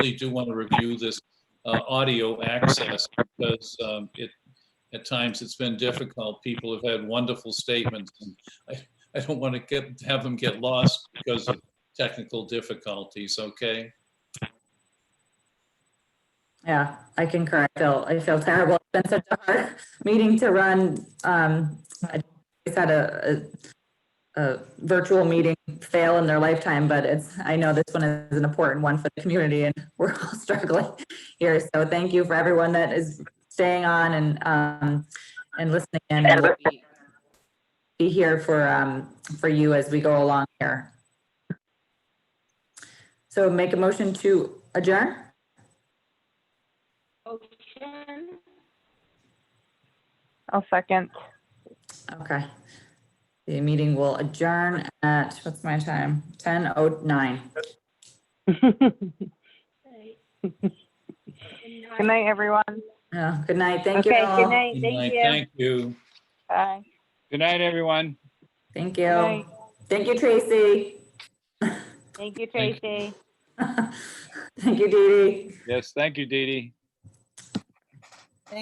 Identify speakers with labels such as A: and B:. A: really do want to review this uh, audio access because um, it, at times it's been difficult. People have had wonderful statements. and I I don't want to get, have them get lost because of technical difficulties, okay?
B: Yeah, I concur. I feel, I feel terrible. It's been such a hard meeting to run. Um, I just had a, a, a virtual meeting fail in their lifetime, but it's, I know this one is an important one for the community and we're all struggling here. So thank you for everyone that is staying on and, um, and listening in. and we'll be- Be here for, um, for you as we go along here. So make a motion to adjourn?
C: Motion,
D: I'll second.
B: Okay. The meeting will adjourn at, what's my time? Ten oh nine.
C: right.
D: Good night, everyone.
B: Yeah, Oh, good night. Thank you
D: Okay, good
B: all.
D: night.
A: I
D: Thank you.
A: Thank you.
D: Bye.
E: Good night, everyone.
B: Thank
D: Good
B: you.
D: night.
B: Thank you, Tracy.
D: Thank you,
A: Thank
D: Tracy.
B: Thank you, Dee Dee.
E: Yes, thank you, Dee Dee.